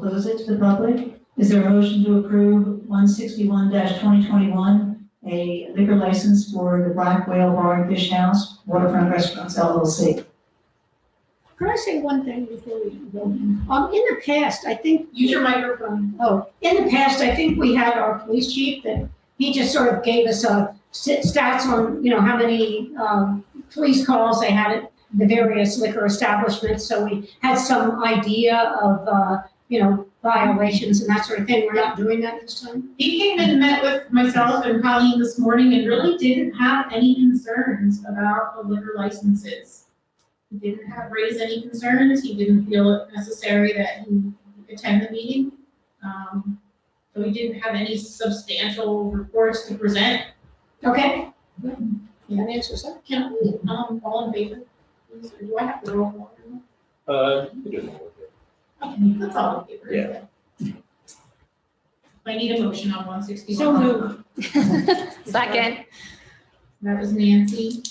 close it to the public. Is there a motion to approve one sixty-one twenty twenty-one, a liquor license for the Black Whale Bar and Fish House Waterfront Restaurants LLC? Can I say one thing before we go? Um, in the past, I think, Use your microphone. oh, in the past, I think we had our police chief that he just sort of gave us a st- stats on, you know, how many, um, police calls they had at the various liquor establishments. So we had some idea of, uh, you know, violations and that sort of thing. We're not doing that this time. He came and met with myself and Colleen this morning and really didn't have any concerns about the liquor licenses. He didn't have, raise any concerns, he didn't feel it necessary that he attend the meeting. Um, So he didn't have any substantial reports to present. Okay? That answers that. Can, um, all in favor? Do I have to roll call? Uh, you can do it. Okay, that's all in favor. Yeah. I need a motion on one sixty-one. So moved. Second, That was Nancy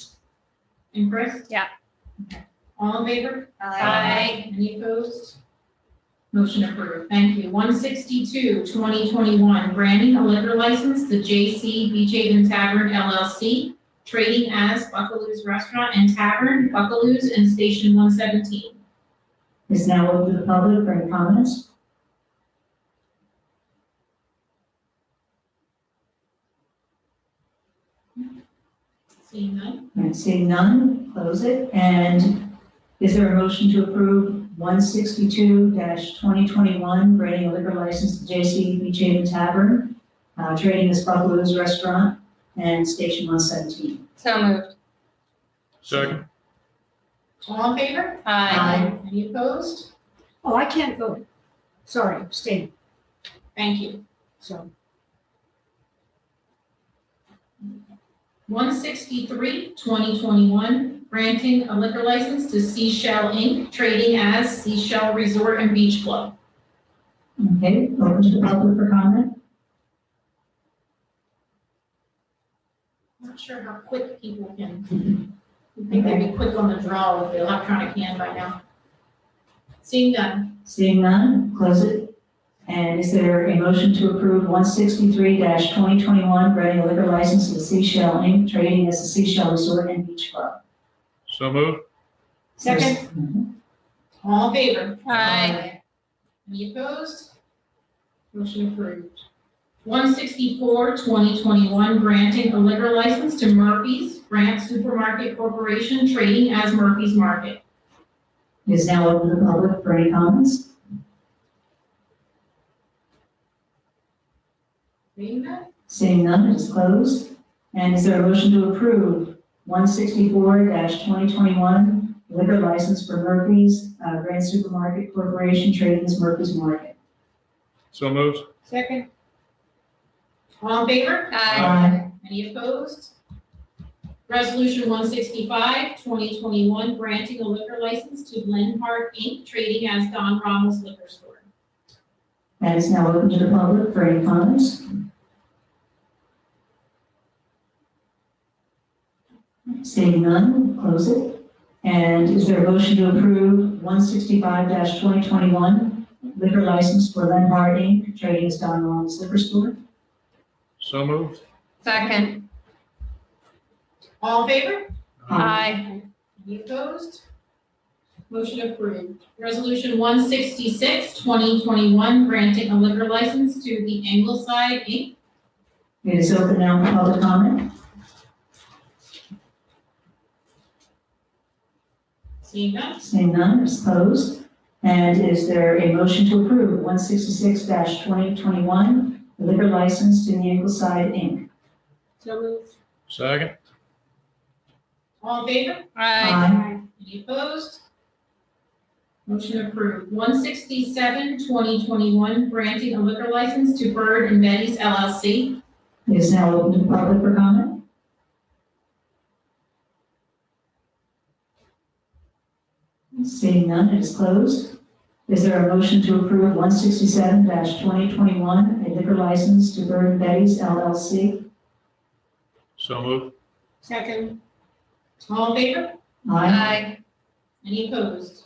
and Chris? Yeah. Okay. All in favor? Aye. Any opposed? Motion approved, thank you. 162, 2021, granting a liquor license to J.C. Beach Haven Tavern LLC, trading as Buckaloo's Restaurant and Tavern, Buckaloo's and Station 117. Is now open to the public for any comments? Seeing none? All right, seeing none, close it. And is there a motion to approve one sixty-two twenty twenty-one, granting a liquor license to J.C. Beach Haven Tavern, uh, trading as Buckaloo's Restaurant and Station one seventeen? so moved. Second. All in favor? Aye. Any opposed? Oh, I can't vote. Sorry, stay, Thank you. so. 163, 2021, granting a liquor license to Seashell Inc., trading as Seashell Resort and Beach Club. Okay, open to the public for comment? Not sure how quick people can, you think they'd be quick on the draw with the electronic hand by now. Seeing done, Seeing none, close it. And is there a motion to approve one sixty-three twenty twenty-one, granting a liquor license to Seashell Inc., trading as a Seashell Resort and Beach Club? So moved. Second? Mhm. all in favor? Aye. Any opposed? Motion approved. 164, 2021, granting a liquor license to Murphy's Grant Supermarket Corporation, trading as Murphy's Market. Is now open to the public for any comments? Seeing that? Seeing none, it is closed. And is there a motion to approve one sixty-four twenty twenty-one liquor license for Murphy's uh, Grand Supermarket Corporation trading as Murphy's Market? So moved. Second? All in favor? Aye. Aye. Any opposed? Resolution 165, 2021, granting a liquor license to Lenhart Inc., trading as Don Ramos Liquor Store. That is now open to the public for any comments. Seeing none, close it. And is there a motion to approve one sixty-five twenty twenty-one liquor license for Lenhart Inc., trading as Don Juan's Liquor Store? So moved. Second, All in favor? aye. Any opposed? Motion approved. Resolution 166, 2021, granting a liquor license to the Angleside Inc. It is open now for public comment. Seeing none? Seeing none, it's closed. And is there a motion to approve 166-2021, the liquor license to the Angleside Inc.? So moved. Second. All in favor? Aye. Any opposed? Motion approved. 167, 2021, granting a liquor license to Bird and Betty's LLC. It is now open to the public for comment. Seeing none, it is closed. Is there a motion to approve 167-2021, a liquor license to Bird and Betty's LLC? So moved. Second? All in favor? Aye. Any opposed?